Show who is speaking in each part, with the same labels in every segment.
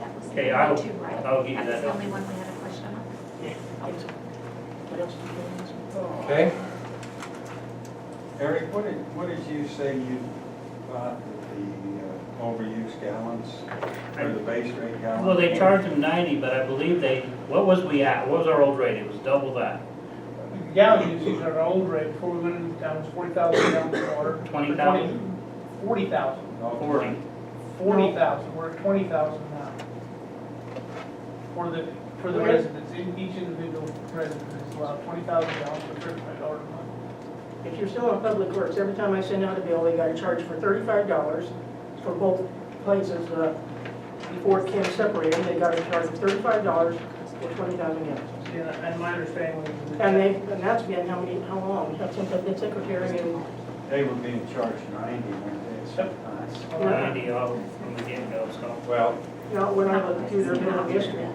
Speaker 1: That was
Speaker 2: Okay,
Speaker 1: the
Speaker 2: I
Speaker 1: one
Speaker 2: will-
Speaker 1: too, right?
Speaker 2: I'll give you
Speaker 1: That's
Speaker 2: that
Speaker 1: the
Speaker 2: note.
Speaker 1: only one we had a question on.
Speaker 3: Okay. Eric, what did, what did you say you thought that the uh, overuse gallons or the base rate gallons?
Speaker 2: Well, they
Speaker 3: were?
Speaker 2: charged them ninety, but I believe they, what was we at? What was our old rate? It was double that,
Speaker 4: Gallon usage on our old rate before we went into town was forty thousand gallons of water.
Speaker 2: 20,000?
Speaker 4: Forty thousand,
Speaker 3: Okay.
Speaker 2: forty.
Speaker 4: forty thousand, we're at twenty thousand now. For the, for the
Speaker 5: Where-
Speaker 4: residents, in each individual resident is allowed twenty thousand gallons per certified order month.
Speaker 5: If you're still on Public Works, every time I send out a bill, they gotta charge for thirty-five dollars for both places, uh, before it can separate them, they gotta charge thirty-five dollars for twenty thousand gallons.
Speaker 4: And and my understanding was. that-
Speaker 5: And they, and that's been how many, how long, that's since I've been secretary and,
Speaker 3: They were being charged ninety, weren't they, at some times?
Speaker 2: Ninety off from the get-go, so.
Speaker 3: Well,
Speaker 5: you know, when I looked through their bill history.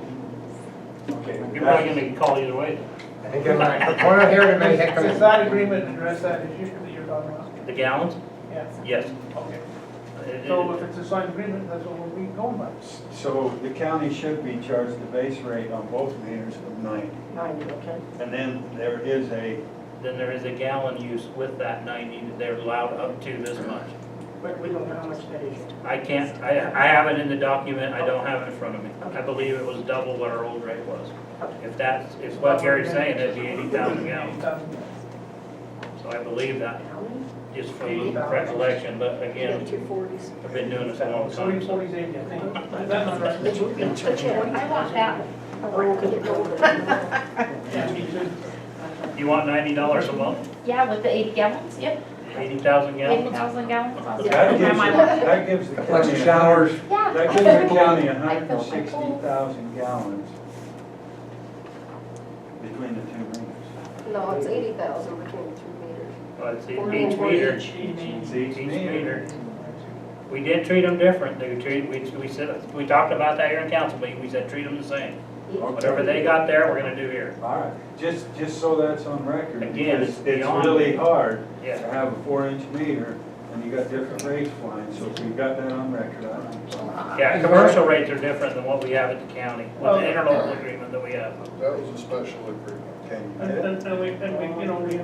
Speaker 3: okay.
Speaker 2: You're probably gonna get called either way,
Speaker 6: I think I'm right. From what I hear, it may heck
Speaker 4: Does
Speaker 6: of
Speaker 4: that agreement address that issue that you're talking about?
Speaker 2: the gallons?
Speaker 4: Yeah,
Speaker 2: Yes.
Speaker 4: okay.
Speaker 2: It-
Speaker 4: So
Speaker 2: it-
Speaker 4: if it's a signed agreement, that's what we're going by.
Speaker 3: So the county should be charged the base rate on both meters of ninety.
Speaker 5: Ninety, okay?
Speaker 3: And then there is a,
Speaker 2: Then there is a gallon use with that ninety that they're allowed up to this much.
Speaker 5: But we don't know how much that is.
Speaker 2: I can't, I, I have it in the document, I don't have it in front of me. I believe it was double what our old rate was. If that's, if what Gary's saying, that'd be eighty thousand gallons. So I believe that, just from recollection, but again,
Speaker 7: Two forties.
Speaker 2: I've been doing this a long time,
Speaker 4: Forty,
Speaker 2: so.
Speaker 4: forty's eighty, I think. Is that not right?
Speaker 1: I want that
Speaker 5: Oh, could it go over?
Speaker 4: Yeah, me too.
Speaker 2: You want ninety dollars a month,
Speaker 1: Yeah, with the eighty gallons, yep,
Speaker 2: eighty thousand
Speaker 1: eighty
Speaker 2: gallons?
Speaker 1: thousand gallons. I'll
Speaker 3: that
Speaker 1: just-
Speaker 3: gives,
Speaker 1: my mind.
Speaker 3: the- that gives the
Speaker 6: a
Speaker 3: county.
Speaker 6: bunch of showers.
Speaker 1: Yeah.
Speaker 3: That gives the county
Speaker 1: I filled my
Speaker 3: hundred and sixty
Speaker 1: pool.
Speaker 3: thousand gallons between the two meters.
Speaker 7: No, it's eighty thousand between the two meters.
Speaker 2: Well, it's each meter,
Speaker 3: It's
Speaker 2: each meter. We did treat them different, they treated, we, we said, we talked about that here in council meeting, we said, treat them the same. Whatever they got there, we're gonna do here,
Speaker 3: All right, just, just so that's on record.
Speaker 2: Again,
Speaker 3: because
Speaker 2: it's
Speaker 3: It's
Speaker 2: beyond-
Speaker 3: really hard to
Speaker 2: yeah.
Speaker 3: have a four-inch meter and you got different rates flying, so if we've got that on record, I don't know.
Speaker 2: Yeah, commercial rates are different than what we have at the county, with the interlocal agreement that we have.
Speaker 8: That was a special agreement.
Speaker 3: Can
Speaker 4: And,
Speaker 3: you get it?
Speaker 4: and- and we, and we, you know, we, we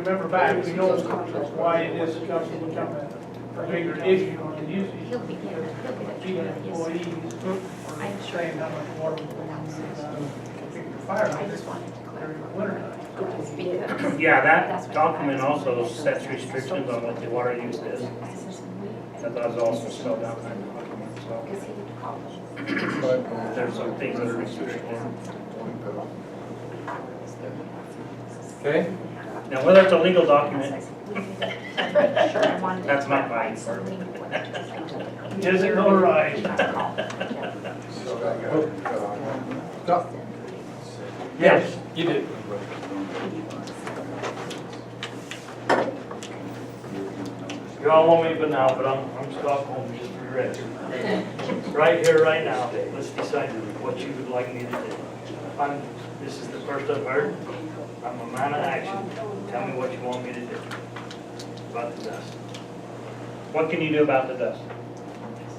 Speaker 4: remember back, we know why it is just become a bigger issue on the usage.
Speaker 1: He'll be, he'll be,
Speaker 4: Being
Speaker 1: he'll
Speaker 4: employees, or saying how much water we're going to use, uh, big fire
Speaker 1: I
Speaker 4: hydrants
Speaker 1: just wanted to
Speaker 4: during the
Speaker 1: clarify.
Speaker 4: winter time.
Speaker 1: Because.
Speaker 2: Yeah, that document also sets restrictions on what the water use is, that does also spell down in the document, so.
Speaker 1: Because he called us.
Speaker 2: There's some things that are restricted.
Speaker 6: Okay,
Speaker 2: Now, whether it's a legal document, That's
Speaker 1: That's
Speaker 2: not mine.
Speaker 4: Is it notarized?
Speaker 8: So that got it cut off.
Speaker 2: yes,
Speaker 6: you did.
Speaker 2: you all want me but now, but I'm, I'm Stockholm, just for rest. Right here, right now, let's decide what you would like me to do. I'm, this is the first I've heard, I'm a man of action, tell me what you want me to do about the dust. What can you do about the dust?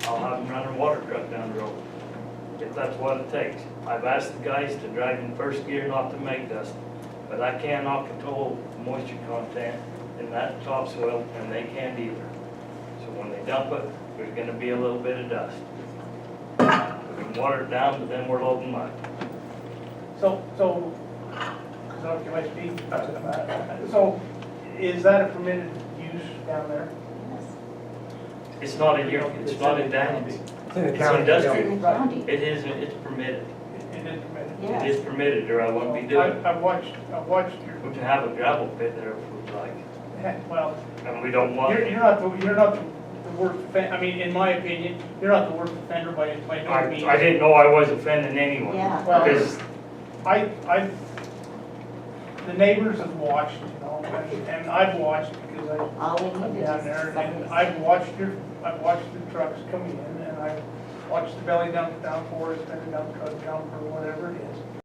Speaker 9: I'll have them run a water truck down the road, if that's what it takes. I've asked the guys to drive in first gear not to make dust, but I cannot control moisture content in that topsoil, and they can't either. So when they dump it, there's gonna be a little bit of dust. We can water it down, but then we're loading mud.
Speaker 4: So, so, so can I speak? So is that a permitted use down there?
Speaker 9: It's not a year, it's not in Danby.
Speaker 6: It's in the
Speaker 9: It's
Speaker 6: county. yeah.
Speaker 9: industrial. It is, it's permitted.
Speaker 4: It is permitted.
Speaker 9: It is permitted, or I wouldn't be doing it.
Speaker 4: I- I've watched, I've watched
Speaker 9: We
Speaker 4: your,
Speaker 9: can have a gravel pit there if we'd like,
Speaker 4: well,
Speaker 9: and we don't want.
Speaker 4: You're, you're not, the you're not the the worst offender, I mean, in my opinion, you're not the worst offender by, by
Speaker 9: I,
Speaker 4: no means.
Speaker 9: I didn't know I was offending anyone.
Speaker 7: Yeah.
Speaker 4: Well,
Speaker 9: Because
Speaker 4: I, I, the neighbors have watched, you know, and- and I've watched because I,
Speaker 7: All we
Speaker 4: I'm
Speaker 7: need
Speaker 4: down there, and
Speaker 7: is.
Speaker 4: I've watched your, I've watched the trucks coming in, and I've watched the belly dump downpours, belly dump truck dump, or whatever it is.